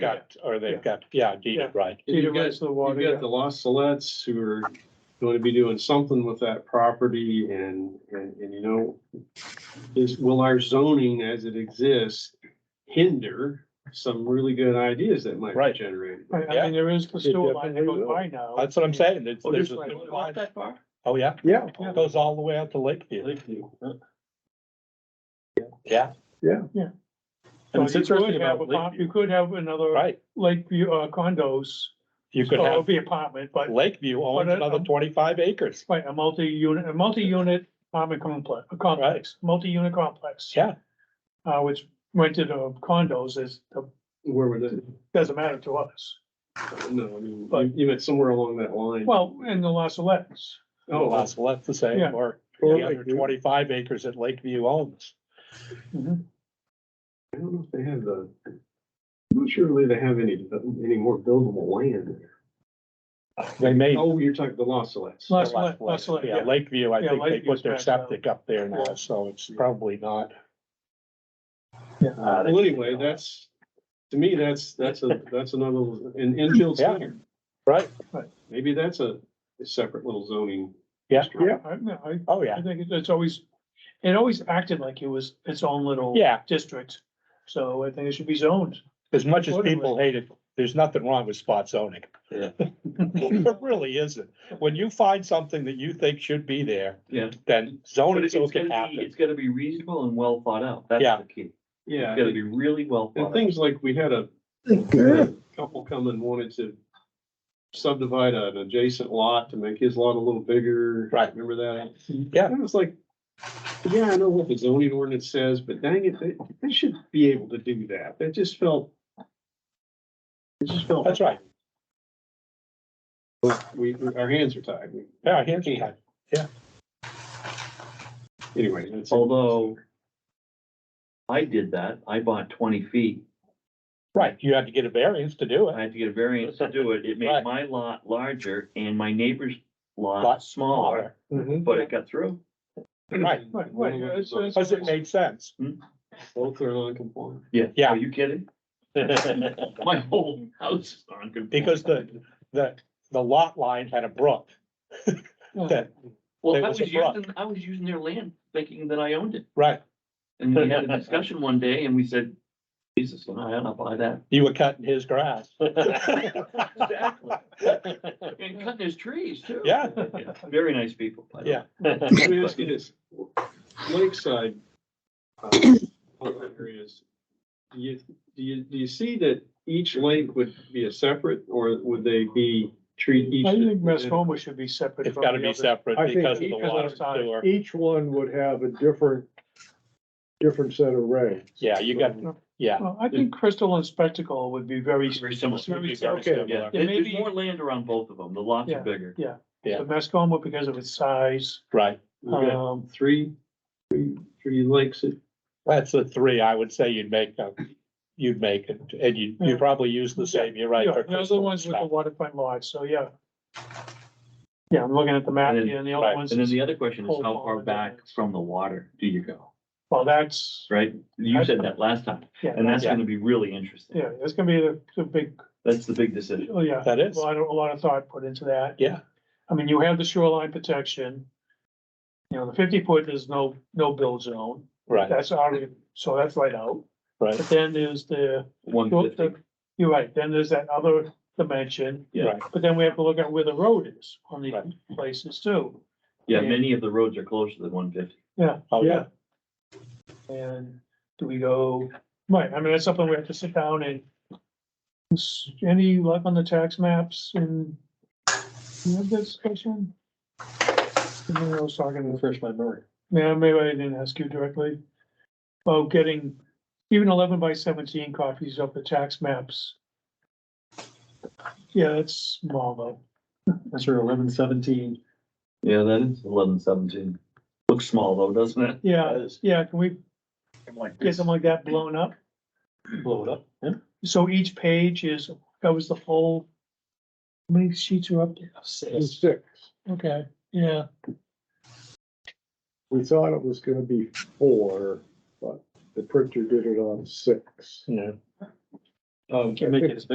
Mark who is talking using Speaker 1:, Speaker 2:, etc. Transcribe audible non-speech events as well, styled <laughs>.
Speaker 1: got, or they've got, yeah, deeded, right.
Speaker 2: You've
Speaker 3: Peter
Speaker 2: got,
Speaker 3: rights to the water.
Speaker 2: you've got the Los Salettes who are going to be doing something with that property and, and, and you know, is, will our zoning as it exists hinder some really good ideas that might
Speaker 1: Right.
Speaker 2: be generated?
Speaker 3: yeah. I- I
Speaker 1: Yeah.
Speaker 3: mean, there is the sewer line that goes
Speaker 4: definitely
Speaker 3: by now.
Speaker 1: That's what I'm saying. It's-
Speaker 3: Well,
Speaker 1: there's
Speaker 3: just
Speaker 1: a-
Speaker 3: like-
Speaker 2: that far?
Speaker 1: Oh, yeah,
Speaker 4: Yeah,
Speaker 3: Yeah.
Speaker 1: goes all the way out to Lakeview. Yeah,
Speaker 3: So
Speaker 4: and it's
Speaker 3: you could
Speaker 4: interesting
Speaker 3: have
Speaker 4: about
Speaker 3: a pop-
Speaker 4: Lakeview.
Speaker 3: You could have another
Speaker 1: right.
Speaker 3: Lakeview uh, condos,
Speaker 1: You could
Speaker 3: so it would
Speaker 1: have
Speaker 3: be apartment, but
Speaker 1: Lakeview owns
Speaker 3: But, uh,
Speaker 1: another
Speaker 3: um,
Speaker 1: twenty-five acres.
Speaker 3: right, a multi-unit, a multi-unit apartment complex, a complex, multi-unit complex.
Speaker 1: Yeah.
Speaker 3: Uh, which rented of condos is,
Speaker 2: Where would it,
Speaker 3: doesn't matter to us.
Speaker 2: no, I mean, you,
Speaker 3: But-
Speaker 2: you meant somewhere along that line.
Speaker 3: Well, in the Los Alettes,
Speaker 2: Oh,
Speaker 1: Lots left the
Speaker 3: Yeah.
Speaker 1: same, or
Speaker 4: Or
Speaker 1: the other
Speaker 4: Lakeview.
Speaker 1: twenty-five acres that Lakeview owns.
Speaker 3: Mm-hmm.
Speaker 2: I don't know if they have the, I'm not sure really they have any, any more buildable land.
Speaker 1: They may.
Speaker 2: Oh, you're talking the Los Salettes.
Speaker 3: Los- Lake- Lake- Lake,
Speaker 1: Yeah,
Speaker 3: yeah.
Speaker 1: Lakeview, I
Speaker 3: Yeah,
Speaker 1: think they
Speaker 3: Lakeview's
Speaker 1: put their
Speaker 3: back down.
Speaker 1: septic up there now,
Speaker 3: Yeah.
Speaker 1: so it's probably not.
Speaker 3: Yeah.
Speaker 1: Uh,
Speaker 2: Well, anyway, that's, to me, that's, that's a, that's another, little- an infield
Speaker 1: Yeah.
Speaker 2: center.
Speaker 1: Right.
Speaker 3: Right.
Speaker 2: Maybe that's a a separate little zoning.
Speaker 1: Yeah.
Speaker 2: district.
Speaker 4: Yeah.
Speaker 3: I, no, I,
Speaker 1: Oh, yeah,
Speaker 3: I think it's- it's always, it always acted like it was its own little
Speaker 1: yeah,
Speaker 3: district. So I think it should be zoned.
Speaker 1: as much as
Speaker 3: Totally.
Speaker 1: people hate it, there's nothing wrong with spot zoning.
Speaker 4: Yeah.
Speaker 1: <laughs> There really isn't. When you find something that you think should be there,
Speaker 4: Yeah.
Speaker 1: then
Speaker 4: But
Speaker 1: zoning
Speaker 4: it's
Speaker 1: so it can
Speaker 4: gonna be,
Speaker 1: happen.
Speaker 4: it's gonna be reasonable and well thought out. That's
Speaker 1: Yeah.
Speaker 4: the key.
Speaker 2: Yeah,
Speaker 4: It's gonna be really well
Speaker 2: and
Speaker 4: thought out.
Speaker 2: things like, we had a couple come and wanted to subdivide an adjacent lot to make his lot a little bigger.
Speaker 1: Right.
Speaker 2: Remember that?
Speaker 1: Yeah.
Speaker 2: And it's like, yeah, I know what the zoning ordinance says, but dang it, they, they should be able to do that. That just felt. It just felt.
Speaker 1: That's right.
Speaker 2: But we, we- our hands are tied. We-
Speaker 1: Yeah, here's the time.
Speaker 2: Anyway, it's.
Speaker 4: Although I did that. I bought twenty feet.
Speaker 1: Right, you had to get a variance to do
Speaker 4: I
Speaker 1: it.
Speaker 4: had to get a variance to do it. It
Speaker 1: Right.
Speaker 4: made my lot larger and my neighbor's lot
Speaker 1: Lot
Speaker 4: smaller,
Speaker 5: Mm-hmm.
Speaker 2: Mhm.
Speaker 4: but it got through.
Speaker 1: Right,
Speaker 3: Right, right, yeah, it's- it's-
Speaker 1: because it made sense.
Speaker 2: Both are non-conforming.
Speaker 4: Yeah.
Speaker 1: Yeah.
Speaker 4: Are you kidding? My whole house is on. good-
Speaker 1: Because the- The, the lot line had a brook. That,
Speaker 4: Well,
Speaker 1: there
Speaker 4: I
Speaker 1: was
Speaker 4: was
Speaker 1: a brook.
Speaker 4: using, I was using their land thinking that I owned it.
Speaker 1: right,
Speaker 4: And we had a discussion one day and we said, Jesus, no, I don't buy that.
Speaker 1: you were cutting his grass. <laughs>
Speaker 4: Exactly. And cutting his trees too.
Speaker 1: Yeah.
Speaker 4: <laughs> Very nice people. by the
Speaker 1: Yeah.
Speaker 4: way.
Speaker 1: <laughs>
Speaker 2: Let me ask you this, Lakeside. uh, Areas, do you, do you, do you see that each lake would be a separate, or would they be treat each?
Speaker 3: I think Mascoma should be separate.
Speaker 1: It's
Speaker 3: from
Speaker 1: gotta
Speaker 3: the
Speaker 1: be
Speaker 3: other.
Speaker 1: separate
Speaker 5: I think
Speaker 1: because of the
Speaker 3: because of
Speaker 1: water
Speaker 3: the size.
Speaker 1: sewer.
Speaker 5: Each one would have a different, different set of regs.
Speaker 1: Yeah, you got, yeah.
Speaker 3: Well, I think Crystal and Spectacle would be very,
Speaker 4: Very similar.
Speaker 1: it'd be
Speaker 3: very
Speaker 1: very
Speaker 5: Okay.
Speaker 3: similar.
Speaker 4: Yeah,
Speaker 1: similar.
Speaker 4: there- there's
Speaker 3: maybe-
Speaker 4: more land around both of them. The lots
Speaker 3: Yeah.
Speaker 4: are bigger.
Speaker 1: Yeah.
Speaker 3: But Mascoma because of its size,
Speaker 1: Right,
Speaker 2: We've
Speaker 5: Uh,
Speaker 2: got
Speaker 3: um,
Speaker 2: Three, three, three lakes, that-
Speaker 1: that's the three I would say you'd make, uh, you'd make it, and you, you
Speaker 3: Yeah.
Speaker 1: probably use the same, you're right.
Speaker 3: yeah,
Speaker 1: for
Speaker 3: those are the
Speaker 1: Crystal
Speaker 3: ones with the
Speaker 1: Lake.
Speaker 3: waterfront lots, so yeah. Yeah, I'm looking at the map
Speaker 4: And then-
Speaker 3: here and the
Speaker 1: right,
Speaker 3: other ones,
Speaker 4: And then
Speaker 3: is-
Speaker 4: the other question is
Speaker 3: Whole
Speaker 4: how far
Speaker 3: pond.
Speaker 4: back from the water do you go,
Speaker 3: well, that's,
Speaker 4: right? You said that last time,
Speaker 3: yeah,
Speaker 4: and that's
Speaker 1: Yeah.
Speaker 4: gonna be really interesting.
Speaker 3: yeah, that's gonna be the, the big,
Speaker 4: That's the big decision.
Speaker 3: oh, yeah.
Speaker 1: That
Speaker 3: A
Speaker 1: is,
Speaker 3: lot of, a lot of thought put into that.
Speaker 1: yeah,
Speaker 3: I mean, you have the shoreline protection. You know, the fifty foot is no, no build zone,
Speaker 1: right,
Speaker 3: that's already, so that's right out,
Speaker 1: right,
Speaker 3: but then there's the,
Speaker 4: One
Speaker 3: Well,
Speaker 4: fifty.
Speaker 3: the- you're right, then there's that other dimension.
Speaker 4: Yeah.
Speaker 1: right,
Speaker 3: But then we have to look at where the road is on these
Speaker 1: Right.
Speaker 3: places too,
Speaker 4: Yeah, many of the roads are closer than one fifty.
Speaker 1: oh, yeah,
Speaker 5: Yeah.
Speaker 3: and do we go, right, I mean, that's something we have to sit down and. Any luck on the tax maps and? You have that discussion? I mean, I was talking to
Speaker 5: Refresh my memory.
Speaker 3: Yeah, maybe I didn't ask you directly. About getting even eleven by seventeen copies of the tax maps. Yeah, it's small though.
Speaker 5: That's your eleven seventeen.
Speaker 4: Yeah, that is eleven seventeen. Looks small though, doesn't it?
Speaker 3: Yeah, yeah, can we
Speaker 4: Like
Speaker 3: get something like that blown up?
Speaker 5: Blow it up.
Speaker 3: So each page is, covers the whole. How many sheets are up there? Six.
Speaker 5: Six.
Speaker 3: Okay, yeah,
Speaker 5: We thought it was gonna be four, but the printer did it on six.
Speaker 1: yeah.
Speaker 6: Um,
Speaker 2: I think